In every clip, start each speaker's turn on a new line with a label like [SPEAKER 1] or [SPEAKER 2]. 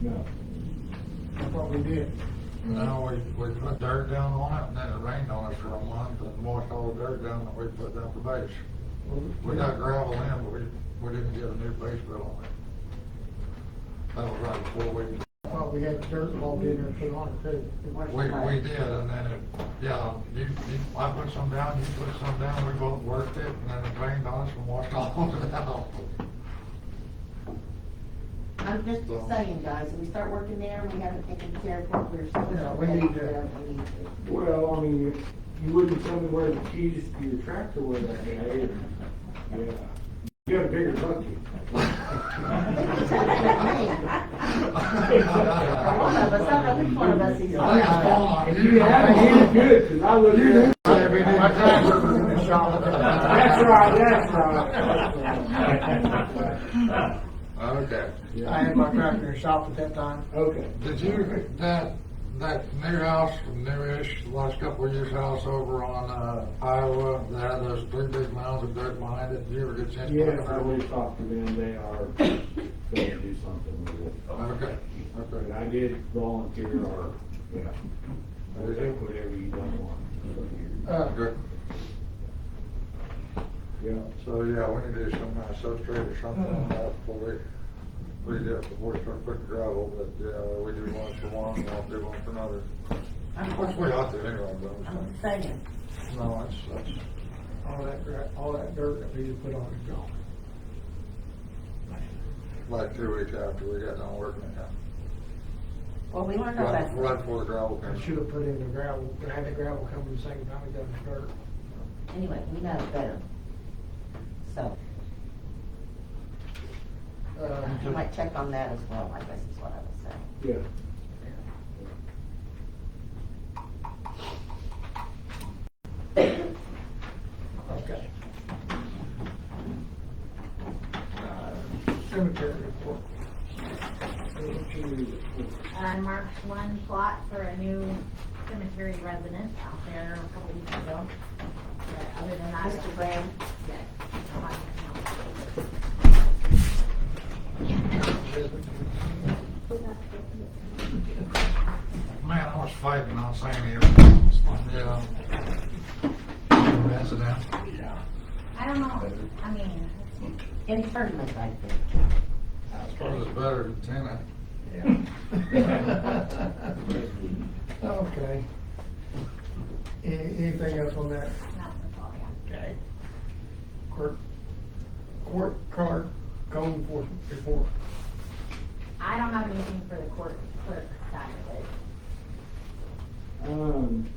[SPEAKER 1] No. I thought we did.
[SPEAKER 2] No, we, we put dirt down on it, and then it rained on it for a month, and washed all the dirt down, and we put down the base. We got gravel in, but we, we didn't get a new base built on it. That was right before we,
[SPEAKER 1] I thought we had dirt involved in there and put on it too.
[SPEAKER 2] we, we did, and then it, yeah, you, you, I put some down, you put some down, we both worked it, and then it rained on us and washed all of it out.
[SPEAKER 3] I'm just saying, guys, if we start working there, we haven't taken care of what we're supposed to.
[SPEAKER 1] Yeah, we need to-
[SPEAKER 3] take care of, we need to.
[SPEAKER 4] Well, I mean, if you wouldn't tell me where the keys to your tractor were that day. or- Yeah. You got a bigger bucket.
[SPEAKER 3] One of us, I don't know which one of us he's
[SPEAKER 2] I think it's
[SPEAKER 3] on.
[SPEAKER 2] falling on
[SPEAKER 4] You had it in good, 'cause I looked at it. That's right, that's right. that's right.
[SPEAKER 2] Okay.
[SPEAKER 1] I had my tractor in the shop at that time.
[SPEAKER 4] Okay.
[SPEAKER 2] Did you, that, that new house, newish, last couple of years house over on, uh, Iowa, that had those three big mounds of dirt behind it, did you ever get a chance? to look
[SPEAKER 4] Yes, I
[SPEAKER 2] at it?
[SPEAKER 4] will talk to them, they are gonna do something with it.
[SPEAKER 2] Okay,
[SPEAKER 4] But
[SPEAKER 2] okay.
[SPEAKER 4] I did volunteer or, yeah, I think whatever you don't want.
[SPEAKER 1] Uh,
[SPEAKER 2] Good.
[SPEAKER 4] Yeah.
[SPEAKER 2] So, yeah, we need to do some kind of substrate or something on that before we, we do, it, before we start putting gravel, but, uh, we do one for one, and I'll do one for another. Which we ought to anyway, but I'm
[SPEAKER 3] I'm
[SPEAKER 2] saying,
[SPEAKER 3] saying,
[SPEAKER 2] no, it's, that's,
[SPEAKER 1] all that, gra- all that dirt that we put on is gone.
[SPEAKER 2] like two weeks after we got done working it out.
[SPEAKER 3] well, we learned our
[SPEAKER 2] Right, right
[SPEAKER 3] lesson,
[SPEAKER 2] before the gravel came.
[SPEAKER 1] I should have put in the gravel, but had the gravel come in the same time we done the dirt.
[SPEAKER 3] anyway, we know better. So, you
[SPEAKER 1] Uh,
[SPEAKER 3] might check on that as well, I guess is what I was saying.
[SPEAKER 4] Yeah.
[SPEAKER 1] okay. Uh, Cemetery report.
[SPEAKER 5] I marked Uh, one plot for a new cemetery resident out there a couple weeks ago. But other than that.
[SPEAKER 3] Mr. Graham?
[SPEAKER 5] Yeah.
[SPEAKER 2] Man, I was fighting on San Diego. Yeah. That's it now.
[SPEAKER 5] I don't know, I mean,
[SPEAKER 3] Internment, I think.
[SPEAKER 2] It's probably better than eh? tenant.
[SPEAKER 1] Okay. Any- Anything else on that?
[SPEAKER 5] not the all, yeah.
[SPEAKER 1] Okay. Court, court card, code enforcement report.
[SPEAKER 5] I don't have anything for the court clerk side of it.
[SPEAKER 4] Um,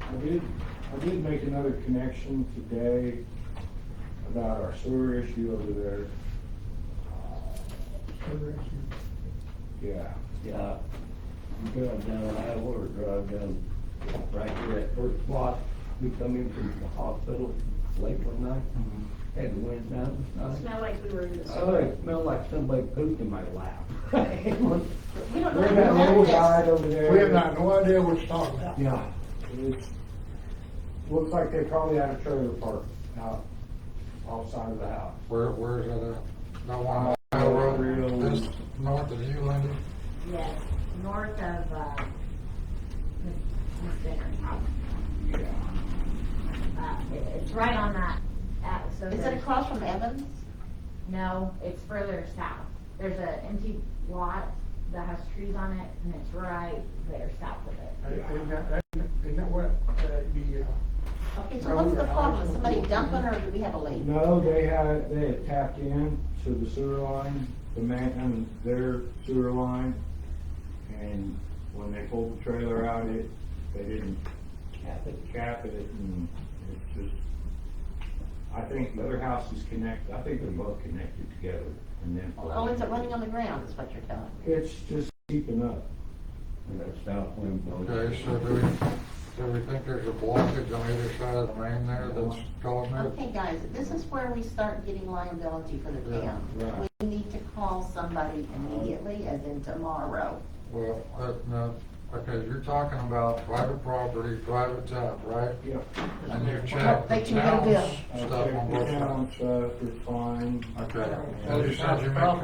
[SPEAKER 4] I did, I did make another connection today about our sewer issue over there. Uh, Yeah.
[SPEAKER 6] Yeah, you drive down Iowa or drive down right here at first block, we come in from the hospital late one night, had the wind down last night.
[SPEAKER 5] Smell like we were in
[SPEAKER 6] Oh, it smelled like somebody pooped in my lap. It was-
[SPEAKER 3] We don't know.
[SPEAKER 4] We
[SPEAKER 3] if
[SPEAKER 4] got
[SPEAKER 3] we
[SPEAKER 4] a
[SPEAKER 3] know
[SPEAKER 4] little
[SPEAKER 3] this.
[SPEAKER 4] guide over there.
[SPEAKER 1] We have not, no idea what you're talking about.
[SPEAKER 6] Yeah,
[SPEAKER 4] It's, looks like they probably had a trailer park out, outside of the house.
[SPEAKER 2] Where, where is that at? That one on Iowa Road, this north of you, Linda?
[SPEAKER 5] Yes, north of, uh, Miss Miss Dinner's house. Uh, it- it's right on that, uh, so.
[SPEAKER 3] Is it
[SPEAKER 5] there's-
[SPEAKER 3] across from Evans?
[SPEAKER 5] No, it's further south. There's an empty lot that has trees on it, and it's right there south of it.
[SPEAKER 1] Isn't that, isn't that what, uh, the, uh,
[SPEAKER 3] Okay, so what's the problem? Is somebody dumping or do we have a leak?
[SPEAKER 4] No, they had, they had tapped in to the sewer line, the man, I mean, their sewer line. And when they pulled the trailer out, it, they didn't
[SPEAKER 6] cap it.
[SPEAKER 4] cap it and it's just, I think the other house is connected, I think they're both connected together and then.
[SPEAKER 3] Oh, is it running on the ground is what you're telling me?
[SPEAKER 4] It's just keeping up.
[SPEAKER 6] And that south wind blows.
[SPEAKER 2] Okay, so do we, do we think there's a blockage on either side of the main there that's causing it?
[SPEAKER 3] Okay, guys, this is where we start getting liability for the town.
[SPEAKER 4] right.
[SPEAKER 3] We need to call somebody immediately, as in tomorrow.
[SPEAKER 2] Well, uh, no, okay, you're talking about private property, private tap, right?
[SPEAKER 4] Yeah.
[SPEAKER 2] And you check
[SPEAKER 3] They
[SPEAKER 2] the
[SPEAKER 3] can go
[SPEAKER 2] town's
[SPEAKER 3] bill.
[SPEAKER 2] stuff on both sides.
[SPEAKER 4] Stuff, it's uh, fine.
[SPEAKER 2] Okay, well, you said you make